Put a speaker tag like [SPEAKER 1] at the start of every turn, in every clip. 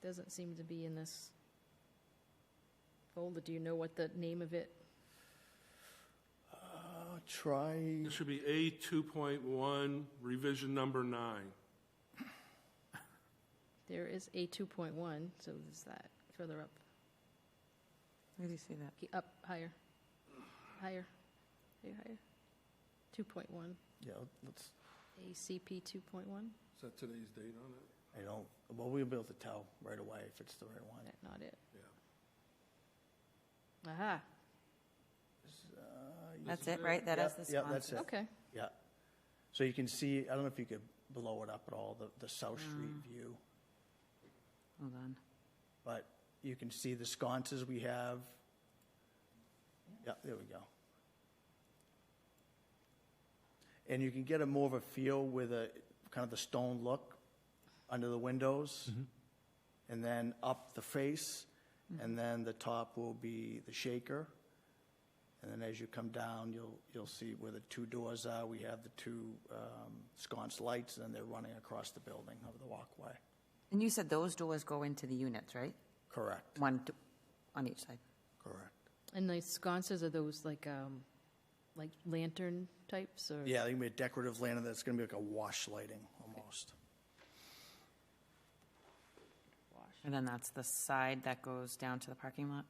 [SPEAKER 1] Doesn't seem to be in this folder. Do you know what the name of it?
[SPEAKER 2] Uh, Try,
[SPEAKER 3] It should be A two point one, revision number nine.
[SPEAKER 1] There is a 2.1, so is that further up,
[SPEAKER 4] Where do you see that?
[SPEAKER 1] Ke- up, higher, higher, higher, higher? 2.1,
[SPEAKER 2] yeah, let's,
[SPEAKER 1] ACP 2.1?
[SPEAKER 3] Is that today's date on it?
[SPEAKER 2] I don't, well, we'll be able to tell right away if it's the right one.
[SPEAKER 1] That not it?
[SPEAKER 3] Yeah.
[SPEAKER 1] Aha,
[SPEAKER 2] Uh,
[SPEAKER 4] That's
[SPEAKER 3] is
[SPEAKER 4] it,
[SPEAKER 3] it.
[SPEAKER 4] right? That is
[SPEAKER 2] Yep,
[SPEAKER 4] the
[SPEAKER 2] yep,
[SPEAKER 4] sponsor.
[SPEAKER 2] that's it.
[SPEAKER 1] okay.
[SPEAKER 2] Yeah. So you can see, I don't know if you could blow it up at all, the, the South Street view,
[SPEAKER 4] Hold on.
[SPEAKER 2] but you can see the sconces we have. Yeah, there we go. And you can get a more of a feel with a, kind of the stone look under the windows. And then up the face, and then the top will be the shaker. And then as you come down, you'll, you'll see where the two doors are. We have the two um, sconce lights, and then they're running across the building over the walkway.
[SPEAKER 4] And you said those doors go into the units, right?
[SPEAKER 2] Correct,
[SPEAKER 4] One d- on each side.
[SPEAKER 2] correct.
[SPEAKER 1] And the sconces, are those like, um, like lantern types or?
[SPEAKER 2] Yeah, they can be a decorative lantern that's going to be like a wash lighting almost.
[SPEAKER 4] And then that's the side that goes down to the parking lot?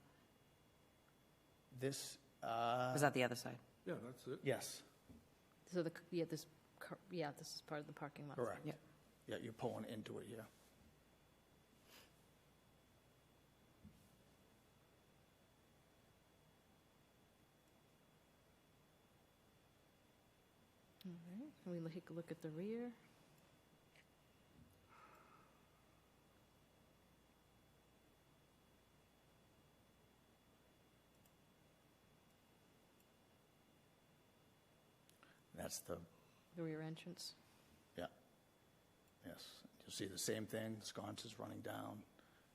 [SPEAKER 2] This, uh,
[SPEAKER 4] Or is that the other side?
[SPEAKER 3] Yeah, that's it.
[SPEAKER 2] yes,
[SPEAKER 1] So the, yeah, this, car- yeah, this is part of the parking lot.
[SPEAKER 2] correct.
[SPEAKER 4] Yeah.
[SPEAKER 2] Yeah, you're pulling into it, yeah.
[SPEAKER 1] Can we take a look at the rear?
[SPEAKER 2] That's the,
[SPEAKER 1] The rear entrance.
[SPEAKER 2] yeah, yes. You'll see the same thing, sconces running down,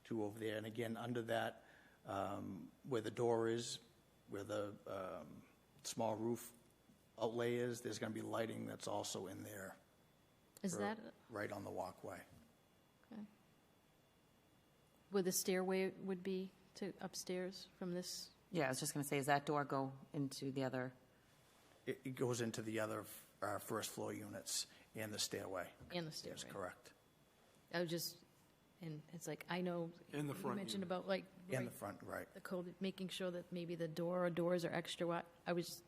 [SPEAKER 2] two over there. And again, under that, um, where the door is, where the um, small roof outlay is, there's going to be lighting that's also in there,
[SPEAKER 1] Is
[SPEAKER 2] Or-
[SPEAKER 1] that
[SPEAKER 2] right on the walkway.
[SPEAKER 1] where the stairway would be to upstairs from this?
[SPEAKER 4] Yeah, I was just going to say, does that door go into the other?
[SPEAKER 2] It, it goes into the other f- uh, first floor units and the stairway.
[SPEAKER 1] And the stairway.
[SPEAKER 2] Yes, correct.
[SPEAKER 1] I was just, and it's like, I know.
[SPEAKER 3] And the front
[SPEAKER 1] You mentioned
[SPEAKER 3] unit.
[SPEAKER 1] about like,
[SPEAKER 2] And the
[SPEAKER 1] right,
[SPEAKER 2] front, right.
[SPEAKER 1] the code, making sure that maybe the door or doors are extra wide. I was,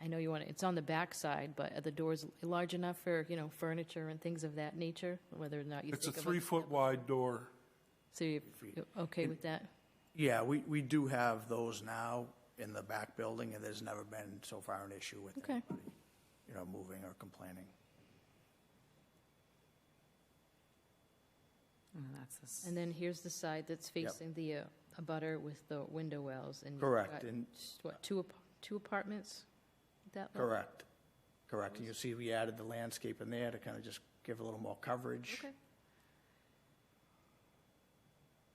[SPEAKER 1] I know you want, it- it's on the back side, but are the doors large enough for, you know, furniture and things of that nature? Whether or not you
[SPEAKER 3] It's a
[SPEAKER 1] think of.
[SPEAKER 3] three foot wide door.
[SPEAKER 1] So you- you're okay with that?
[SPEAKER 2] Yeah, we, we do have those now in the back building, and there's never been so far an issue with
[SPEAKER 1] Okay.
[SPEAKER 2] anybody, you know, moving or complaining.
[SPEAKER 4] And that's this.
[SPEAKER 1] And then here's the side that's facing the uh, abutter with the window wells and. you've
[SPEAKER 2] Correct,
[SPEAKER 1] got,
[SPEAKER 2] and-
[SPEAKER 1] What, two, ap- two apartments? That one?
[SPEAKER 2] Correct, correct. And you see we added the landscape in there to kind of just give a little more coverage.
[SPEAKER 1] Okay.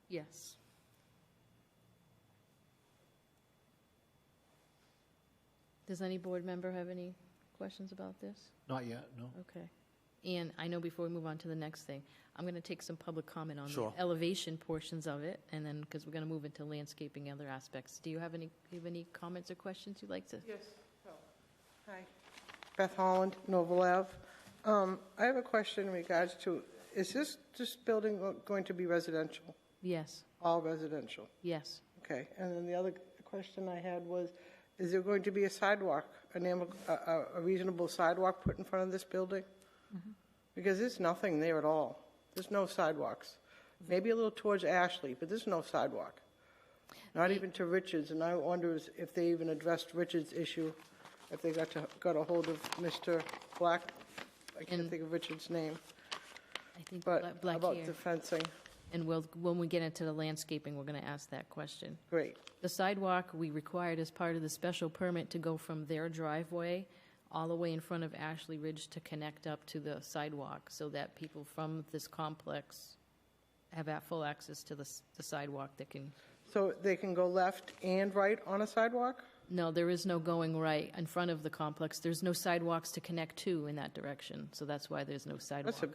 [SPEAKER 1] Yes. Does any board member have any questions about this?
[SPEAKER 5] Not yet, no.
[SPEAKER 1] Okay. And I know before we move on to the next thing, I'm going to take some public comment on the
[SPEAKER 2] Sure.
[SPEAKER 1] elevation portions of it, and then, because we're going to move into landscaping and other aspects. Do you have any, you have any comments or questions you'd like to?
[SPEAKER 6] Yes. Hi. Beth Holland, Noble Ave. Um, I have a question in regards to, is this, this building going to be residential?
[SPEAKER 1] Yes,
[SPEAKER 6] All residential?
[SPEAKER 1] yes.
[SPEAKER 6] Okay. And then the other question I had was, is there going to be a sidewalk, an am- a a- a reasonable sidewalk put in front of this building?
[SPEAKER 1] Mm-hmm.
[SPEAKER 6] Because there's nothing there at all. There's no sidewalks. Maybe a little towards Ashley, but there's no sidewalk. Not even to Richards, and I wonder is- if they even addressed Richards' issue, if they got to, got a hold of Mr. Black, I can't
[SPEAKER 1] And-
[SPEAKER 6] think of Richards' name,
[SPEAKER 1] I think
[SPEAKER 6] but
[SPEAKER 1] Bla- Black
[SPEAKER 6] about
[SPEAKER 1] here.
[SPEAKER 6] the fencing.
[SPEAKER 1] And we'll, when we get into the landscaping, we're going to ask that question.
[SPEAKER 6] Great.
[SPEAKER 1] The sidewalk we required as part of the special permit to go from their driveway all the way in front of Ashley Ridge to connect up to the sidewalk so that people from this complex have at full access to the, s- the sidewalk that can,
[SPEAKER 6] So they can go left and right on a sidewalk?
[SPEAKER 1] no, there is no going right in front of the complex. There's no sidewalks to connect to in that direction, so that's why there's no sidewalk.